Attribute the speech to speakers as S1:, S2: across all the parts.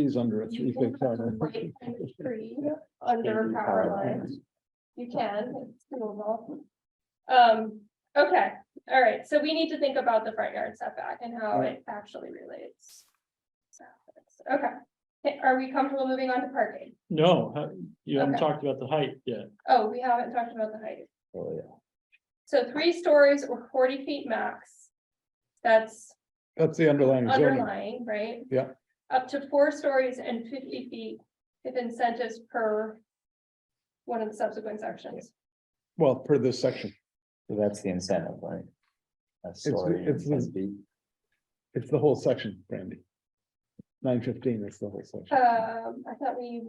S1: He's under a
S2: You
S1: three
S2: can
S1: foot
S2: have a
S1: cover.
S2: light and a tree Under power lines, you can, it's doable. Um, okay, all right, so we need to think about the front yard setback and how it actually relates. Okay, Okay, are we comfortable moving on to parking?
S1: No, huh, you haven't
S2: Okay.
S1: talked about the height yet.
S2: Oh, we haven't talked about the height.
S1: Oh, yeah.
S2: So three stories or forty feet max. That's
S1: That's the underlying zoning.
S2: underlying, right?
S1: Yeah.
S2: Up to four stories and fifty feet if incentives per one of the subsequent sections.
S1: Well, per this section,
S3: So That's the incentive, right? A story
S1: it's
S3: and
S1: the-
S3: speed.
S1: it's the whole section, Brandy. Nine fifteen is the whole section.
S2: Um, I thought we,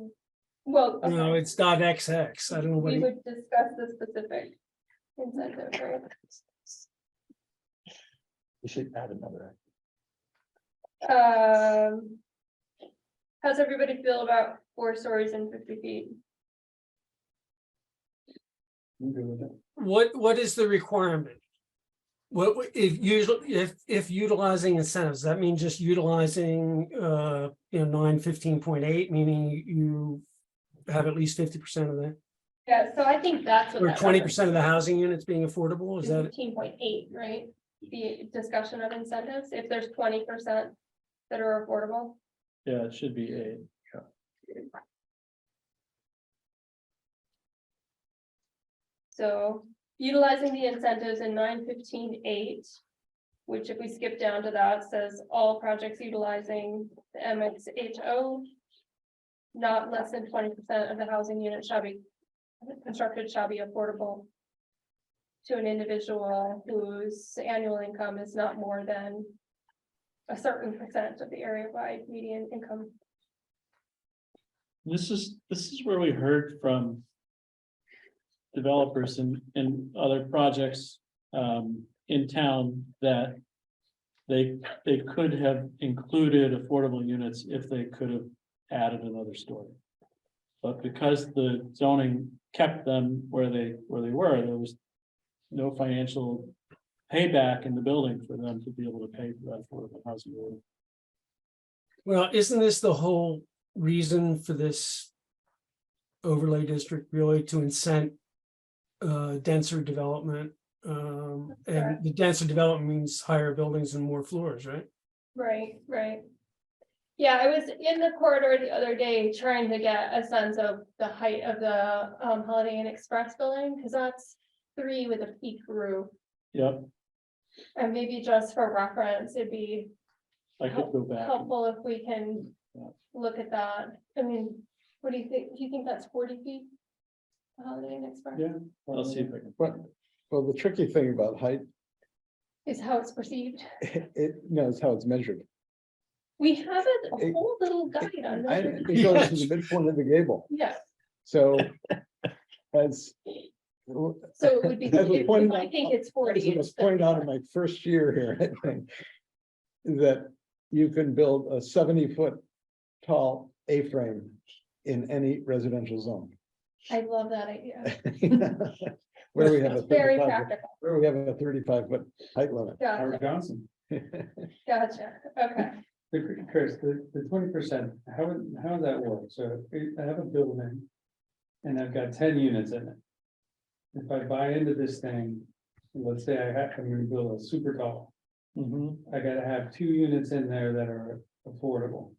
S2: well,
S4: No,
S2: okay,
S4: it's not XX. I don't know what
S2: we
S4: he-
S2: would discuss the specific incentive, right?
S3: We should add another.
S2: Um. How's everybody feel about four stories and fifty feet?
S4: what, what is the requirement? What, what- if usually, if, if utilizing incentives, that means just utilizing, uh, you know, nine fifteen point eight, meaning you have at least fifty percent of the,
S2: Yeah, so I think that's what.
S4: or twenty percent of the housing units being affordable, is that? it?
S2: Fifteen point eight, right? The discussion of incentives, if there's twenty percent that are affordable.
S1: Yeah, it should be eight.
S2: So utilizing the incentives in nine fifteen eight. Which if we skip down to that, says all projects utilizing the MXHO. Not less than twenty percent of the housing unit shall be constructed shall be affordable. To an individual whose annual income is not more than. A certain percent of the area wide median income.
S5: This is, this is where we heard from. Developers and, and other projects, um, in town that. They, they could have included affordable units if they could have added another story. But because the zoning kept them where they, where they were, there was. No financial payback in the building for them to be able to pay for that affordable housing. unit.
S4: Well, isn't this the whole reason for this overlay district really to incent uh, denser development? Um, and
S2: Correct.
S4: the denser development means higher buildings and more floors, right?
S2: Right, right. Yeah, I was in the corridor the other day trying to get a sense of the height of the um Holiday Inn Express building, because that's three with a peak roof.
S5: Yep,
S2: And maybe just for reference, it'd be
S5: I could go back. and-
S2: helpful if we can
S5: Yeah.
S2: look at that. I mean, what do you think? Do you think that's forty feet? The Holiday Inn Express
S5: Yeah, I'll see if I can.
S1: But, well, the tricky thing about height,
S2: is how it's perceived.
S1: it knows how it's measured.
S2: We have a- a
S1: It-
S2: whole little guide on
S1: I-
S2: that.
S1: It goes to the midpoint of the gable,
S2: Yeah,
S1: so as
S2: so it would be,
S1: As was pointed
S2: I
S1: out-
S2: think it's
S1: As
S2: forty.
S1: it was
S2: it's the-
S1: pointed out in my first year here, I think. That you can build a seventy foot tall A-frame in any residential zone.
S2: I love that idea.
S1: Where we have a
S2: It's very
S1: 35
S2: practical.
S1: where we have a thirty-five foot height limit.
S2: Gotcha,
S5: Howard Johnson,
S2: gotcha. Okay,
S5: the- Chris, the, the twenty percent, how, would- how would that work? So if I have a building and I've got ten units in it. If I buy into this thing, let's say I have, I'm gonna build a super tall. I gotta have two units in there that are affordable.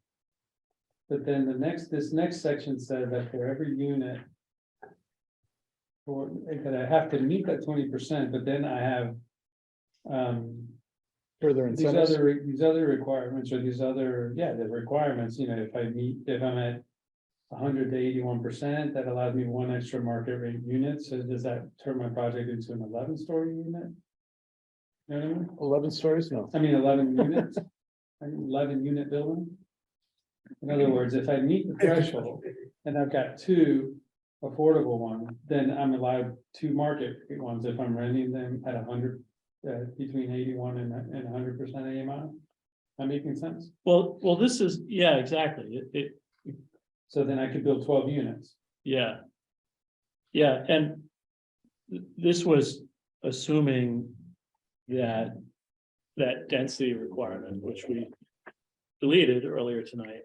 S5: But then the next, this next section said that for every unit. Or that I have to meet that twenty percent, but then I have. Um,
S1: Further
S5: these
S1: incentives,
S5: other, these other requirements or these other, yeah, the requirements, you know, if I meet, if I'm at. hundred to eighty-one percent, that allows me one extra market rate unit, so does that turn my project into an eleven-story unit? You know what I mean?
S1: eleven stories, no.
S5: I mean, eleven units, an eleven-unit building? In other words, if I meet the threshold and I've got two affordable ones, then I'm allowed two market rate ones if I'm renting them at hundred, uh, between eighty-one and, and hundred percent AMI. Am I making sense?
S6: Well, well, this is, yeah, exactly, it, it,
S5: So then I could build twelve units.
S6: yeah. Yeah, and th- this was assuming that, that density requirement, which we deleted earlier tonight.